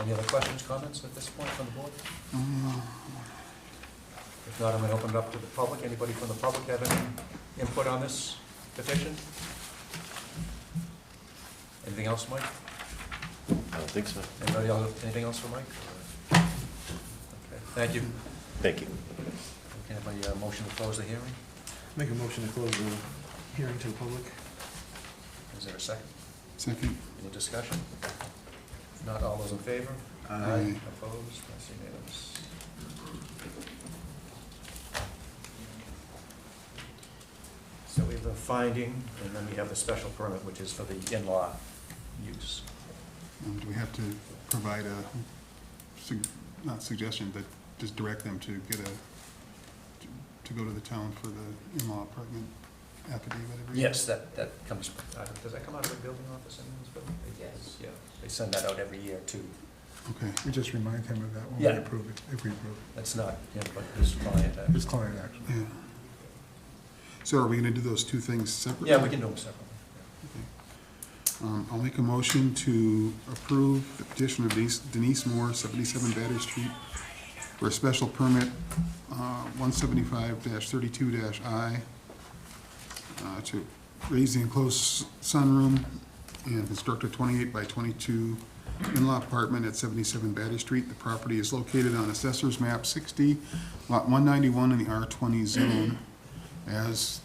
Any other questions, comments at this point from the board? If not, I'm going to open it up to the public. Anybody from the public have any input on this petition? Anything else, Mike? I don't think so. Anybody else, anything else for Mike? Okay, Thank you. Thank you. Can I have a uh, motion to close the hearing? Make a motion to close the hearing to the public. Is there a second? Second. Any discussion? If not, all those in favor? Aye. Opposed? That's unanimous. So we have the finding, and then we have the special permit, which is for the in-law use. Um, Do we have to provide a, sug- not suggestion, but just direct them to get a, to go to the town for the in-law apartment affidavit? every- Yes, that, that comes, uh, does that come out of the building office in this building? Yes. Yeah, they send that out every year too. Okay, We just remind him of that when Yeah. we approve it, if we approve That's not him, but his client. it, uh, his client actually. yeah. So are we gonna do those two things separately? Yeah, we can do them separately. Um, I'll make a motion to approve the petition of Denise- Denise Moore, seventy-seven Batter Street, for a special permit, uh, one seventy-five thirty-two I, uh, to raise the enclosed sunroom and construct a twenty-eight by twenty-two in-law apartment at seventy-seven Batter Street. The property is located on Assessor's Map sixty, Lot one ninety-one in the R twenty zone, as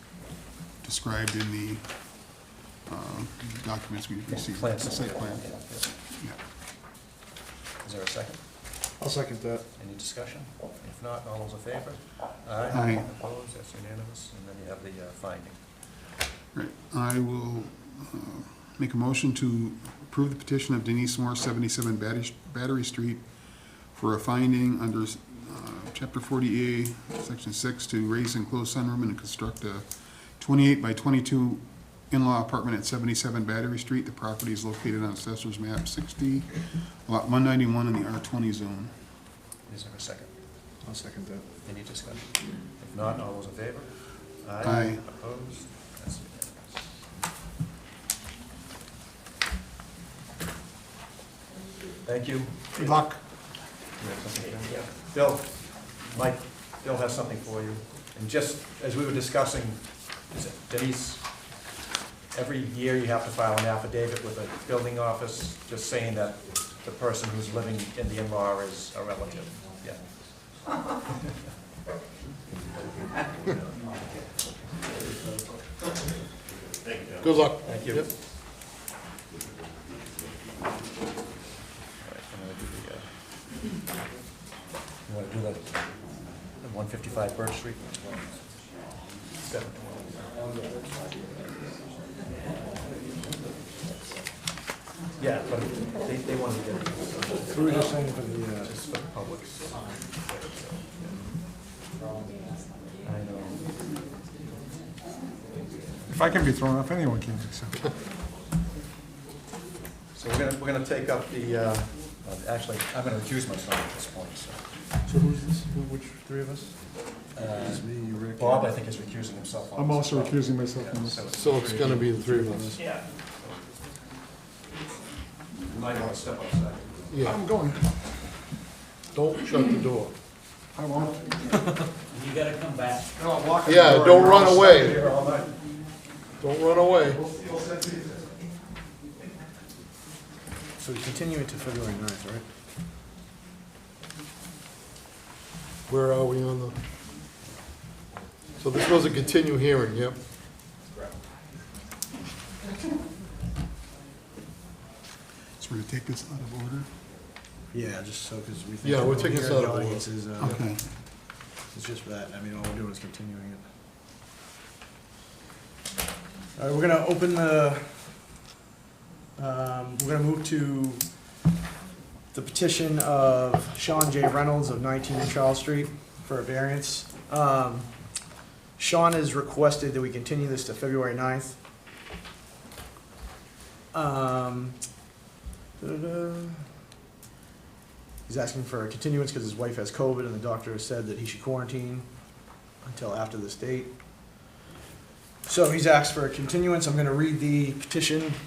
described in the um, documents we've Yeah. received. Plans. The Site plan, Yeah, yeah. yeah. Is there a second? I'll second that. Any discussion? If not, all those in favor? Aye. Aye. Opposed, that's unanimous, and then you have the uh, finding. Right, I will uh, make a motion to approve the petition of Denise Moore, 77 Batty- Battery Street, for a finding under uh, Chapter 40A, Section 6, to raise enclosed sunroom and construct a 28 by 22 in-law apartment at 77 Battery Street. The property is located on Assessor's Map 60, Lot 191 in the R20 zone. Is there a second? I'll second that. Any discussion? If not, all those in favor? Aye. Opposed, that's unanimous. Thank you. Good luck. You have something, Bill? Bill, Mike, Bill has something for you. And just as we were discussing, is it Denise, every year you have to file an affidavit with a building office just saying that the person who's living in the in-law is a relative. Yeah. Good luck. Thank you. All right, I'm gonna do the, uh, You want to do that, the 155 Birch Street? Seven. Yeah, but they, they want to get it Who are you signing for the, uh, just for the public. I know. If I can be thrown off, anyone can be, so. So we're gonna, we're gonna take up the, uh, uh, actually, I'm gonna accuse myself at this point, so. so who's this, who- which three of us? Uh, It's me, you, Rick. Bob, I think, is recusing himself. on I'm this also as well. recusing myself from Yeah, this. So it's gonna be the three of us. Yeah. You Might want to step outside. Yeah, I'm going. don't shut the door. I won't. You gotta come back. Yeah, don't run away. Here all night. Don't run away. So we continue it to February ninth, right? Where are we on the? So this was a continue hearing, yep. So we're gonna take this out of order? Yeah, just so, because we think. Yeah, we'll everyone take this here in out of the order. audience is, uh, Okay. It's just for that, I mean, all we're doing is continuing it. All right, we're gonna open the, um, we're gonna move to the petition of Sean J. Reynolds of 19 Charles Street for a variance. Um, Sean has requested that we continue this to February 9th. Um, da-da-da. He's asking for a continuance because his wife has COVID and the doctor has said that he should quarantine until after this date. So he's asked for a continuance. I'm going to read the petition